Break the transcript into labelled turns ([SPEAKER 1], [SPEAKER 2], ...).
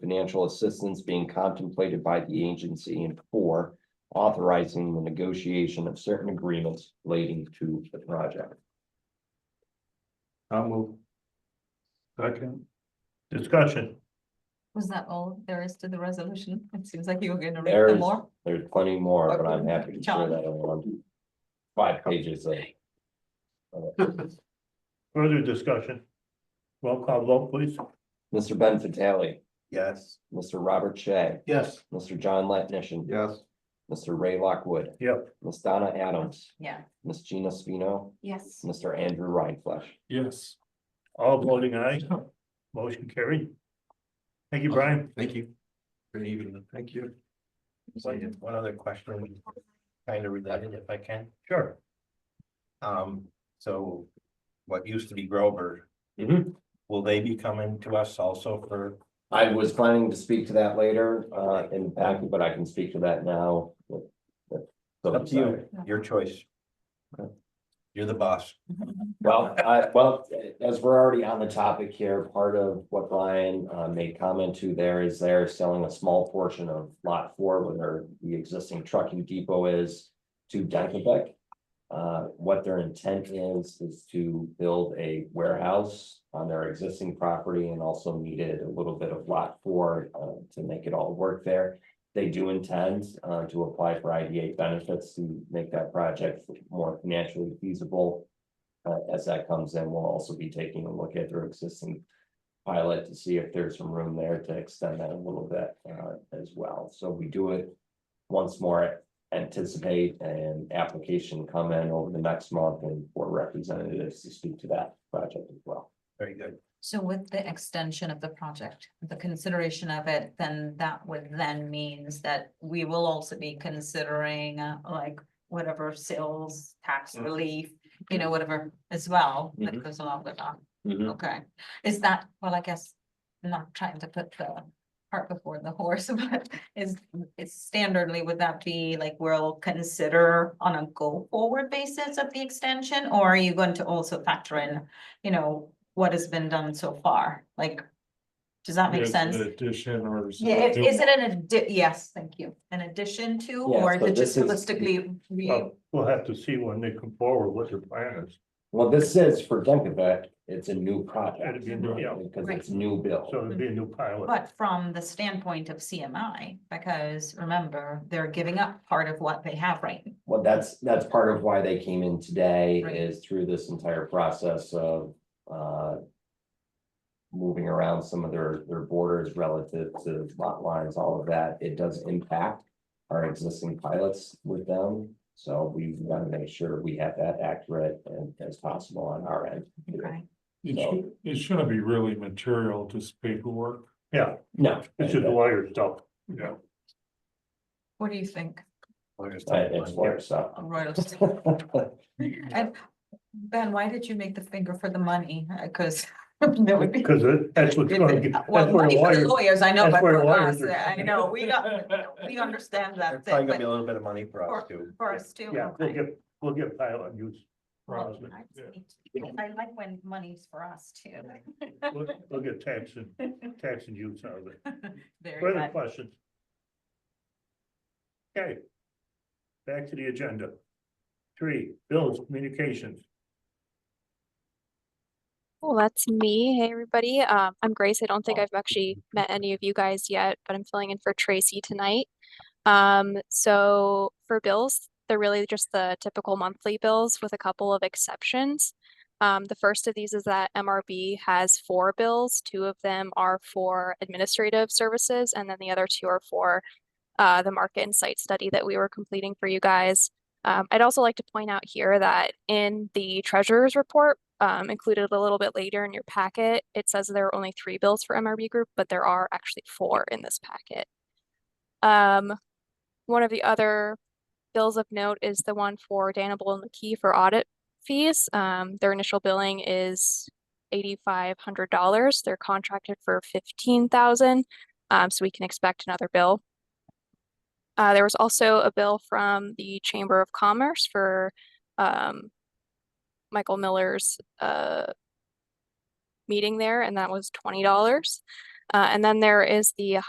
[SPEAKER 1] financial assistance being contemplated by the agency and four, authorizing the negotiation of certain agreements relating to the project.
[SPEAKER 2] I'll move. Second. Discussion.
[SPEAKER 3] Was that all there is to the resolution? It seems like you were gonna read
[SPEAKER 1] There's,
[SPEAKER 3] them more.
[SPEAKER 1] there's plenty more, but I'm happy to share
[SPEAKER 3] John.
[SPEAKER 1] that on five pages of.
[SPEAKER 2] Further discussion. Roll call vote, please.
[SPEAKER 1] Mr. Ben Vitale,
[SPEAKER 2] Yes.
[SPEAKER 1] Mr. Robert Shea,
[SPEAKER 2] Yes.
[SPEAKER 1] Mr. John Latnition,
[SPEAKER 2] Yes.
[SPEAKER 1] Mr. Ray Lockwood,
[SPEAKER 2] Yep.
[SPEAKER 1] Ms. Donna Adams,
[SPEAKER 3] Yeah.
[SPEAKER 1] Ms. Gina Spino,
[SPEAKER 3] Yes.
[SPEAKER 1] Mr. Andrew Rhineflesh.
[SPEAKER 2] Yes. All voting aye. Motion carried. Thank you, Brian.
[SPEAKER 4] Thank you. Good evening. Thank you. So I did one other question, kind of related if I can.
[SPEAKER 2] Sure.
[SPEAKER 4] Um, so what used to be Grover,
[SPEAKER 1] Mm-hmm.
[SPEAKER 4] will they be coming to us also for?
[SPEAKER 1] I was planning to speak to that later, uh, in the packet, but I can speak to that now. with- with- so
[SPEAKER 4] Up to you, your choice. You're the boss.
[SPEAKER 1] Well, I, well, as we're already on the topic here, part of what Brian uh made comment to there is they're selling a small portion of lot four where their- the existing trucking depot is to Dunkelbeck. Uh, what their intent is, is to build a warehouse on their existing property and also needed a little bit of lot four uh to make it all work there. They do intend uh to apply for IDA benefits to make that project more financially feasible. Uh, as that comes in, we'll also be taking a look at their existing pilot to see if there's some room there to extend that a little bit, uh, as well. So we do it once more, anticipate an application come in over the next month and for representatives to speak to that project as well.
[SPEAKER 4] Very good.
[SPEAKER 3] So with the extension of the project, the consideration of it, then that would then means that we will also be considering uh, like whatever sales tax
[SPEAKER 4] Mhm.
[SPEAKER 3] relief, you know, whatever as well that
[SPEAKER 1] Mhm.
[SPEAKER 3] goes along with that. Okay, is that, well, I guess, I'm not trying to put the cart before the horse, but is, is standardly, would that be like, we'll consider on a go-forward basis of the extension, or are you going to also factor in, you know, what has been done so far, like, does that make
[SPEAKER 5] Yes, an
[SPEAKER 3] sense?
[SPEAKER 2] uh,
[SPEAKER 5] Addition or. is it
[SPEAKER 3] Yeah,
[SPEAKER 5] do-
[SPEAKER 3] is it an addi- yes, thank you, an addition to,
[SPEAKER 1] Yeah,
[SPEAKER 3] or is
[SPEAKER 1] so
[SPEAKER 3] it just
[SPEAKER 1] this is-
[SPEAKER 3] holistically? re-
[SPEAKER 2] Well, We'll have to see when they come forward what their plan is.
[SPEAKER 1] Well, this is for Dunkelbeck, it's a new project.
[SPEAKER 2] It'd be a new- yeah.
[SPEAKER 1] Because it's new build.
[SPEAKER 2] So it'd be a new pilot.
[SPEAKER 3] But from the standpoint of CMI, because remember, they're giving up part of what they have right
[SPEAKER 1] Well, that's, that's part of why they came in today
[SPEAKER 3] Right.
[SPEAKER 1] is through this entire process of, uh. Moving around some of their, their borders relative to lot lines, all of that, it does impact our existing pilots with them. So we've got to make sure we have that accurate and as possible on our end.
[SPEAKER 3] Okay,
[SPEAKER 5] It should, it shouldn't be really material, just paperwork.
[SPEAKER 2] Yeah,
[SPEAKER 1] No.
[SPEAKER 2] it's just lawyer stuff.
[SPEAKER 5] Yeah.
[SPEAKER 3] what do you think,
[SPEAKER 1] I- It's where, so.
[SPEAKER 3] of Royal? Oak? And Ben, why did you make the finger for the money? Because that would be.
[SPEAKER 2] Because it- that's what's gonna get, that's
[SPEAKER 3] Well,
[SPEAKER 2] where
[SPEAKER 3] money for the
[SPEAKER 2] lawyers,
[SPEAKER 3] lawyers, I know,
[SPEAKER 2] that's
[SPEAKER 3] but
[SPEAKER 2] where
[SPEAKER 3] for us,
[SPEAKER 2] lawyers are-
[SPEAKER 3] I know, we got, we understand
[SPEAKER 4] There's
[SPEAKER 3] that
[SPEAKER 4] probably
[SPEAKER 3] thing,
[SPEAKER 4] gonna be a
[SPEAKER 3] but
[SPEAKER 4] little bit of money for us too.
[SPEAKER 3] for us too.
[SPEAKER 2] yeah, we'll
[SPEAKER 3] okay.
[SPEAKER 2] get, we'll get pilot use.
[SPEAKER 3] Well,
[SPEAKER 2] from it, yeah.
[SPEAKER 3] I I like when money's for us too.
[SPEAKER 2] We'll we'll get tax and, tax and use out of it.
[SPEAKER 3] Very
[SPEAKER 2] Further
[SPEAKER 3] good.
[SPEAKER 2] questions? Okay. Back to the agenda. Three, bills, communications.
[SPEAKER 6] Well, that's me. Hey, everybody. Um, I'm Grace. I don't think I've actually met any of you guys yet, but I'm filling in for Tracy tonight. Um, so for bills, they're really just the typical monthly bills with a couple of exceptions. Um, the first of these is that MRB has four bills. Two of them are for administrative services, and then the other two are for uh, the market and site study that we were completing for you guys. Um, I'd also like to point out here that in the treasurer's report, um, included a little bit later in your packet, it says there are only three bills for MRB Group, but there are actually four in this packet. Um, one of the other bills of note is the one for Danable and McKee for audit fees. Um, their initial billing is eighty-five hundred dollars. They're contracted for fifteen thousand, um, so we can expect another bill. Uh, there was also a bill from the Chamber of Commerce for, um, Michael Miller's, uh, meeting there, and that was twenty dollars. Uh, and then there is the